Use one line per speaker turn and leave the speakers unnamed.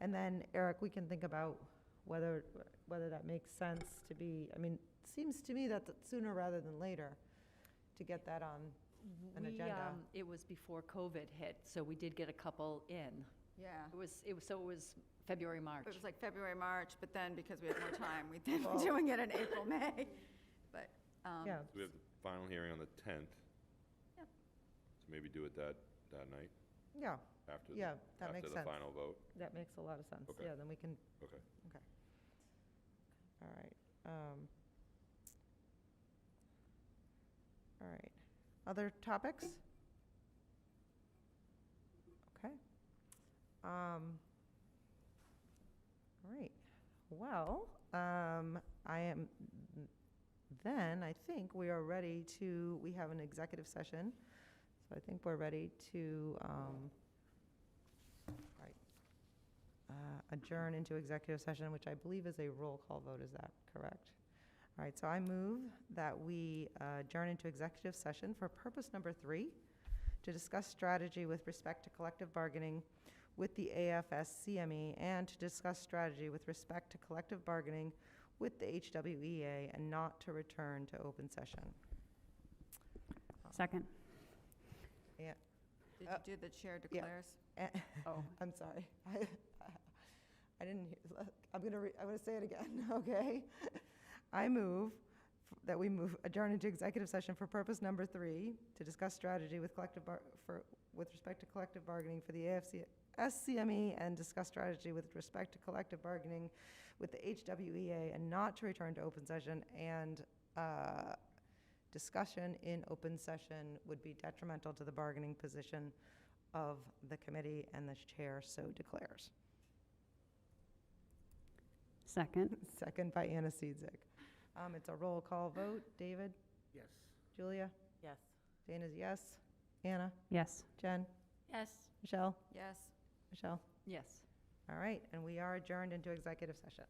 And then, Eric, we can think about whether, whether that makes sense to be, I mean, it seems to me that sooner rather than later, to get that on. an
We,
agenda.
um, It was before COVID hit, so we did get a couple in.
Yeah.
It was, it was, so it was February, March.
It was like February, March, but then because we had more time, we then were doing it in April, May. But, um,
Yeah,
We have the final hearing on the 10th.
Yep.
So maybe do it that, that night,
yeah,
after, the-
Yeah, that
after
makes
the
sense.
final vote.
that makes a lot of sense.
Okay.
Yeah, then we can,
Okay.
okay. All right. um, All right. Other topics? Okay. Um, All right. Well, um, I am, then I think we are ready to, we have an executive session. So I think we're ready to, um, all right, uh, adjourn into executive session, which I believe is a roll call vote. Is that correct? All right, so I move that we uh, adjourn into executive session for purpose number three, to discuss strategy with respect to collective bargaining with the AFS-CME E and to discuss strategy with respect to collective bargaining with the HWEA and not to return to open session.
Second.
Yeah,
did
Uh,
you do the chair declares?
eh,
Oh.
I'm sorry. I I didn't, hear- I'm going to, I'm going to say it again, okay? I move f- that we move, adjourn into executive session for purpose number three, to discuss strategy with collective, bar- for, with respect to collective bargaining for the AFC, SCME, E and discuss strategy with respect to collective bargaining with the HWEA, and not to return to open session, and uh, discussion in open session would be detrimental to the bargaining position of the committee, and the chair so declares.
Second.
Second by Anna Seizik. Um, It's a roll call vote. David?
Yes.
Julia?
Yes.
Dana's yes. Anna?
Yes.
Jen?
Yes.
Michelle?
Yes.
Michelle?
Yes.
All right, and we are adjourned into executive session.